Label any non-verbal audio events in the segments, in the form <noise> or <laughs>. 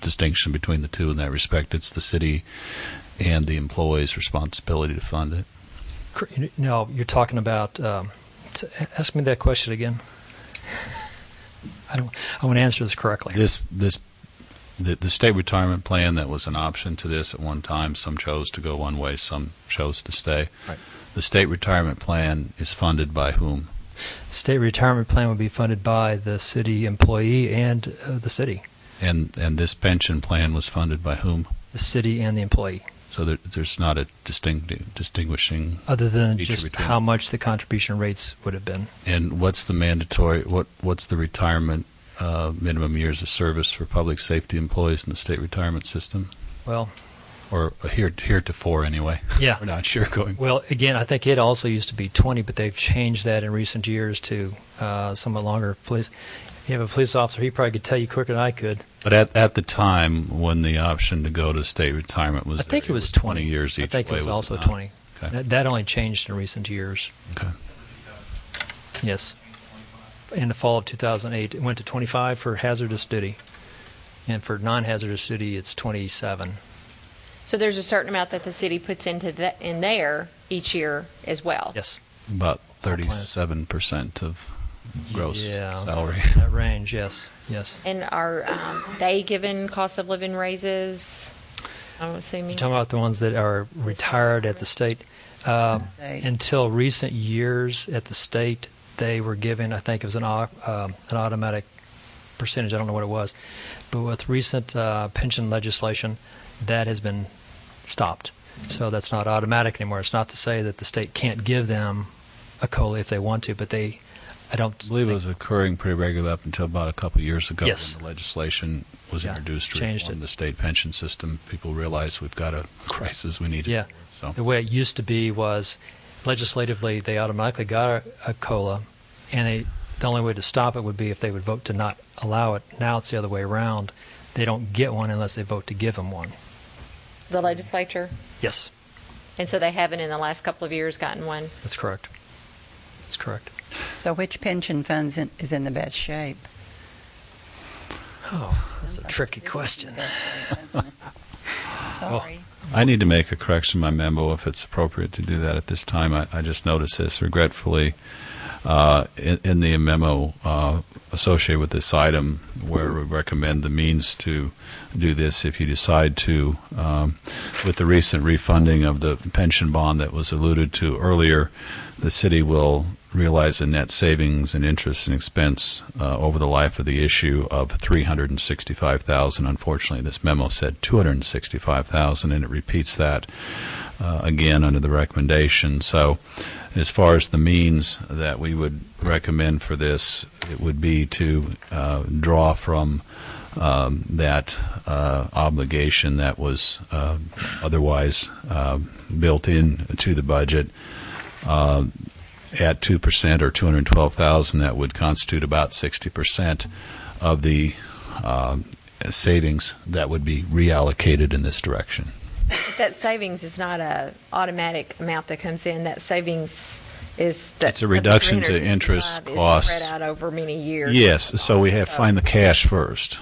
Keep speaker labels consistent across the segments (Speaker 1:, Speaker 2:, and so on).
Speaker 1: distinction between the two in that respect. It's the city and the employee's responsibility to fund it.
Speaker 2: Cr- No, you're talking about. Um, t- ask me that question again. I don't. I want to answer this correctly.
Speaker 1: This this the, the state retirement plan that was an option to this at one time. Some chose to go one way, some chose to stay.
Speaker 2: Right.
Speaker 1: The state retirement plan is funded by whom?
Speaker 2: State retirement plan would be funded by the city employee and uh, the city,
Speaker 1: And and this pension plan was funded by whom?
Speaker 2: the city and the employee.
Speaker 1: So there, there's not a distinct distinguishing.
Speaker 2: Other than
Speaker 1: Feature
Speaker 2: just
Speaker 1: between
Speaker 2: how
Speaker 1: them.
Speaker 2: much the contribution rates would have been.
Speaker 1: And what's the mandatory? What what's the retirement uh, minimum years of service for public safety employees in the state retirement system? <laughs>
Speaker 2: Well,
Speaker 1: Or here heretofore
Speaker 2: <laughs>
Speaker 1: anyway.
Speaker 2: Yeah.
Speaker 1: We're not sure going.
Speaker 2: well, again, I think it also used to be 20, but they've changed that in recent years to uh, somewhat longer. Police, you have a police officer, he probably could tell you quicker than I could.
Speaker 1: But at, at the time when the option to go to state retirement was,
Speaker 2: I think
Speaker 1: there,
Speaker 2: it was 20.
Speaker 1: years each
Speaker 2: I think
Speaker 1: way,
Speaker 2: it was also
Speaker 1: not?
Speaker 2: 20.
Speaker 1: Okay.
Speaker 2: That, that only changed in recent years.
Speaker 1: Okay.
Speaker 2: Yes. In the fall of 2008, it went to 25 for hazardous duty. And for non-hazardous duty, it's 27.
Speaker 3: So there's a certain amount that the city puts into that, in there each year as well?
Speaker 2: Yes.
Speaker 1: About thirty-seven percent of gross
Speaker 2: Yeah.
Speaker 1: salary.
Speaker 2: That range, yes, yes.
Speaker 3: And are um, they given cost of living raises? I'm
Speaker 2: You're
Speaker 3: assuming.
Speaker 2: talking about the ones that are retired at the state. Uh,
Speaker 4: State.
Speaker 2: Until recent years at the state, they were given, I think it was an, au- um, an automatic percentage, I don't know what it was. But with recent uh, pension legislation, that has been stopped. So that's not automatic anymore. It's not to say that the state can't give them a COLA if they want to, but they, I don't.
Speaker 1: <laughs> I believe it was occurring pretty regularly up until about a couple of years ago
Speaker 2: Yes.
Speaker 1: when the legislation was
Speaker 2: Yeah,
Speaker 1: introduced to
Speaker 2: changed
Speaker 1: reform
Speaker 2: it.
Speaker 1: the state pension system. People realized we've got a <laughs> crisis we need to
Speaker 2: Yeah.
Speaker 1: deal with, so.
Speaker 2: The way it used to be was legislatively, they automatically got a, a COLA, and they, the only way to stop it would be if they would vote to not allow it. Now it's the other way around. They don't get one unless they vote to give them one.
Speaker 3: The legislature?
Speaker 2: Yes,
Speaker 3: And so they haven't in the last couple of years gotten one?
Speaker 2: that's correct. That's correct.
Speaker 4: So which pension funds in, is in the best shape?
Speaker 2: Oh, that's a tricky question. <laughs>
Speaker 4: Sorry.
Speaker 1: I need to make a correction in my memo if it's appropriate to do that at this time. I, I just noticed this regretfully uh, in, in the memo uh, associated with this item where we recommend the means to do this if you decide to. Um, with the recent refunding of the pension bond that was alluded to earlier, the city will realize a net savings in interest and expense uh, over the life of the issue of 365,000. Unfortunately, this memo said 265,000 and it repeats that uh, again under the recommendation. So as far as the means that we would recommend for this, it would be to uh, draw from um, that uh, obligation that was uh, otherwise uh, built in to the budget at 2% or 212,000, that would constitute about 60% of the um, savings that would be reallocated in this direction.
Speaker 3: But That savings is not a automatic amount that comes in, that savings is. that-
Speaker 1: It's a reduction to
Speaker 3: the 365
Speaker 1: interest
Speaker 3: is
Speaker 1: costs.
Speaker 3: Spread out over many years.
Speaker 1: Yes, so we have, find the cash first.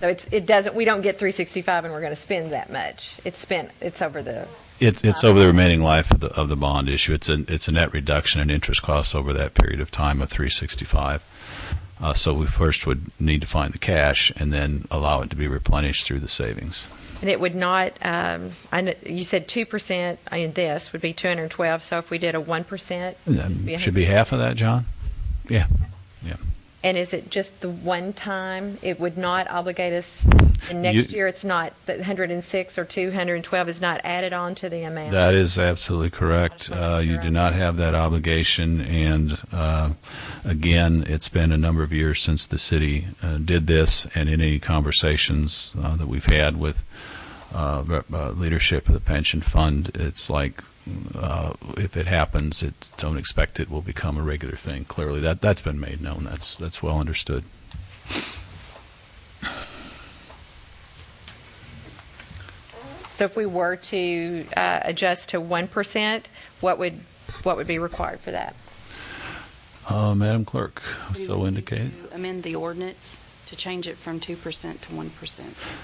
Speaker 3: So it's, it doesn't, we don't get 365 and we're going to spend that much. It's spent, it's over the,
Speaker 1: It's, it's over the remaining life of the, of the bond issue. It's a, it's a net reduction in interest costs over that period of time of 365. Uh, So we first would need to find the cash and then allow it to be replenished through the savings.
Speaker 3: and it would not, um, I, kn- you said 2% in this would be 212, so if we did a 1%. it'd
Speaker 1: And
Speaker 3: just
Speaker 1: that
Speaker 3: a
Speaker 1: Should be half of that, John? Yeah, yeah.
Speaker 3: And is it just the one time? It would not obligate us, and next
Speaker 1: You-
Speaker 3: year it's not, the 106 or 212 is not added on to the amount?
Speaker 1: That is absolutely correct.
Speaker 3: just wanna make
Speaker 1: Uh, You
Speaker 3: sure
Speaker 1: do
Speaker 3: I'm-
Speaker 1: not have that obligation, and uh, again, it's been a number of years since the city uh, did this, and in any conversations uh, that we've had with uh, rep- uh, leadership of the pension fund, it's like, uh, if it happens, it, don't expect it will become a regular thing. Clearly, that, that's been made known, that's, that's well understood.
Speaker 3: So if we were to uh, adjust to 1%, what would, what would be required for that?
Speaker 1: Uh, Madam Clerk,
Speaker 5: We
Speaker 1: so
Speaker 5: would need
Speaker 1: indicated.
Speaker 5: to Amend the ordinance to change it from 2% to 1%.